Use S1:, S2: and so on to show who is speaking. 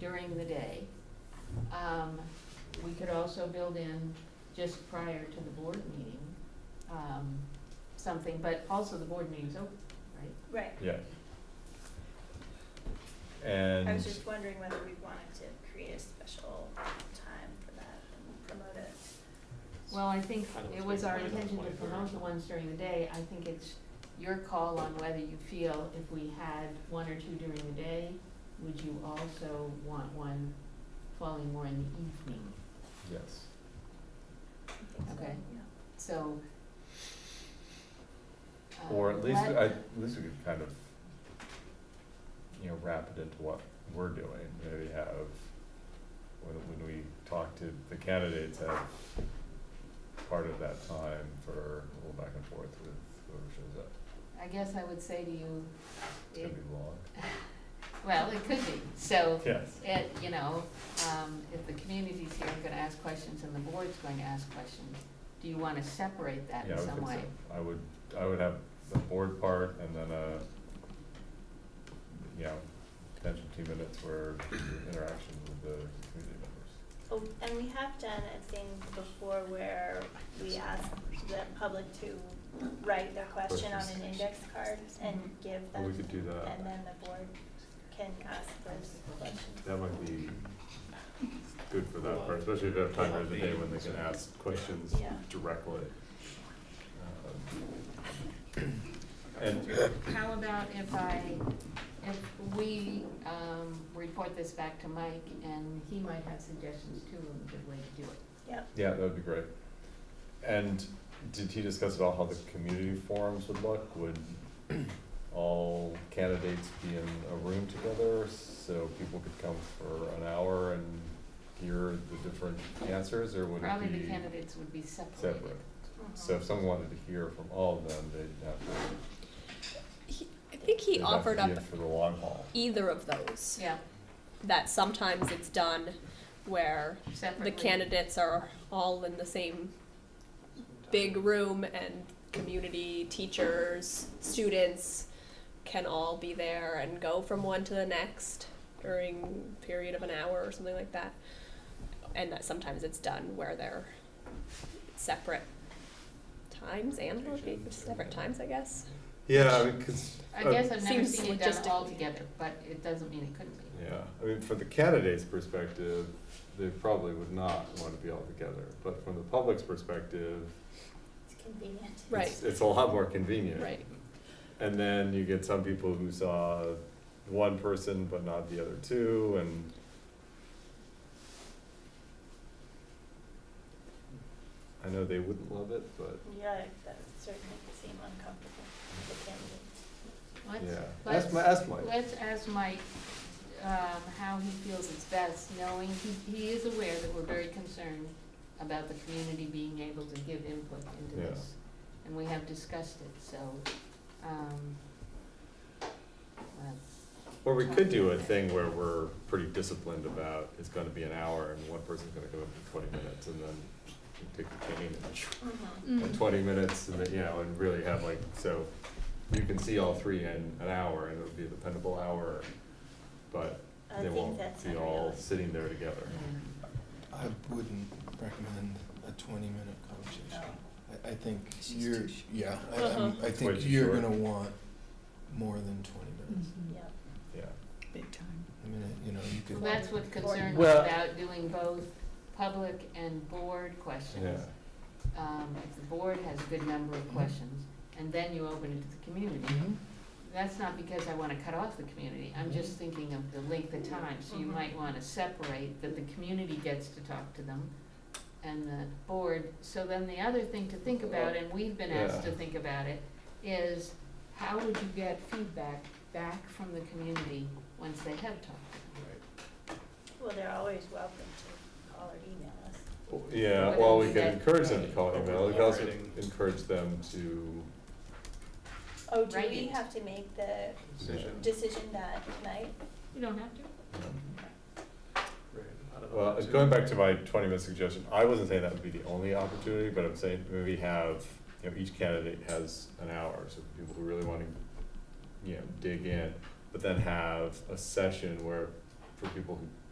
S1: during the day. Um, We could also build in, just prior to the board meeting, um, something, but also the board meeting's open, right?
S2: Right,
S3: Yeah.
S2: I
S3: And,
S2: was just wondering whether we wanted to create a special time for that and promote it.
S1: Well, I think
S4: I don't
S1: it was
S4: think
S1: our
S4: we did on
S1: intention to
S4: 23rd.
S1: promote the ones during the day. I think it's your call on whether you feel if we had one or two during the day, would you also want one falling more in the evening?
S3: yes,
S2: I think so,
S1: Okay.
S2: yeah.
S1: So. uh,
S3: or at least,
S1: let-
S3: I, at least we could kind of, you know, wrap it into what we're doing, maybe have, when, when we talk to the candidates, have part of that time for a little back and forth with whoever shows up,
S1: I guess I would say to you,
S3: it's gonna
S1: it,
S3: be long,
S1: well, it could be, so,
S3: yes,
S1: it, you know, um, if the community's here, I'm gonna ask questions, and the board's going to ask questions, do you wanna separate that
S3: yeah,
S1: in
S3: I would
S1: some
S3: think
S1: way?
S3: so, I would, I would have the board part and then
S4: uh,
S3: a, you know, potential two minutes for interaction with the community members.
S2: Oh, and we have done a thing before where we ask the public to write their question on an index card and give
S4: Or
S2: them.
S4: Oh, we could do that.
S2: And then the board can ask those questions.
S4: That might be good for that part, especially if they have time during the day when they can ask questions
S2: Yeah.
S4: directly. Um, And,
S1: How about if I, if we, um, report this back to Mike, and he might have suggestions too, of a good way to do it?
S2: Yep,
S3: Yeah, that would be great. And did he discuss at all how the community forums would look? Would all candidates be in a room together so people could come for an hour and hear the different answers, or would
S1: Probably
S3: it
S1: the
S3: be
S1: candidates would be separated.
S3: separate?
S2: Mm-hmm.
S3: So if someone wanted to hear from all of them, they'd have to,
S5: He, I think he
S3: they'd have
S5: offered
S3: to
S5: up
S3: be in for the long haul.
S5: either of those.
S1: Yeah,
S5: That sometimes it's done where
S1: separately.
S5: the candidates are all in the same big room and community teachers, students can all be there and go from one to the next during a period of an hour or something like that. And that sometimes it's done where they're separate times and locations, separate times, I guess.
S4: yeah, I mean, cause.
S1: I
S4: uh,
S1: guess I've never
S5: Seems
S1: seen it done all
S5: logistically-
S1: together, but it doesn't mean it couldn't be.
S4: Yeah, I mean, from the candidate's perspective, they probably would not want to be all together, but from the public's perspective,
S2: it's convenient.
S5: Right,
S4: it's, it's a lot more convenient.
S5: right.
S3: And then you get some people who saw one person but not the other two, and I know they wouldn't love it, but
S2: Yeah, that would certainly seem uncomfortable for candidates.
S1: Let's,
S4: yeah,
S1: let's-
S4: ask my, ask Mike.
S1: let's ask Mike, um, how he feels it's best, knowing he, he is aware that we're very concerned about the community being able to give input into
S4: Yeah.
S1: this. And we have discussed it, so, um, well,
S4: Or we could do a thing where we're pretty disciplined about, it's gonna be an hour and one person's gonna come up for twenty minutes and then you take the cane and
S2: Mm-hmm.
S4: and twenty minutes and then, you know, and really have like, so you can see all three in an hour and it would be the dependable hour, but
S2: I
S4: they
S2: think
S4: won't
S2: that's
S4: be all
S2: unrealistic.
S4: sitting there together.
S1: yeah.
S6: I wouldn't recommend a twenty-minute
S2: Oh,
S6: conversation. I, I think
S5: It's just
S6: you're,
S5: too short.
S6: yeah, I,
S5: Uh-huh.
S6: I'm- I
S3: It's way
S6: think
S3: too
S6: you're
S3: short.
S6: gonna want more than twenty minutes.
S2: Yeah.
S3: yeah.
S7: Big time.
S5: Mm-hmm.
S6: I mean, you know, you
S1: Well,
S6: could,
S1: That's what concerns me
S4: Well-
S1: about doing both public and board questions.
S4: Yeah.
S1: Um, if the board has a good number of questions, and then you open it to the community.
S6: Mhm.
S1: That's not because I wanna cut off the community, I'm just thinking of the length of time, so you
S2: Mhm.
S1: might wanna separate that the community gets to talk to them and the board, so then the other thing to think about, and we've been asked to
S4: Yeah.
S1: think about it, is how would you get feedback back from the community once they have talked?
S2: Well, they're always welcome to call or email us.
S4: Well, Yeah,
S1: What
S4: well,
S1: else
S4: we can
S1: that-
S4: encourage them to call an email, we can also
S7: Writing.
S4: encourage them to,
S2: Oh, do we
S1: Writing.
S2: have to make the
S7: Decision.
S2: decision that night?
S1: You don't have to.
S4: um,
S7: Right. Not an
S3: Well,
S7: opportunity.
S3: going back to my twenty minute suggestion, I wasn't saying that would be the only opportunity, but I'm saying maybe have, you know, each candidate has an hour, so people who really wanna, you know, dig in, but then have a session where, for people who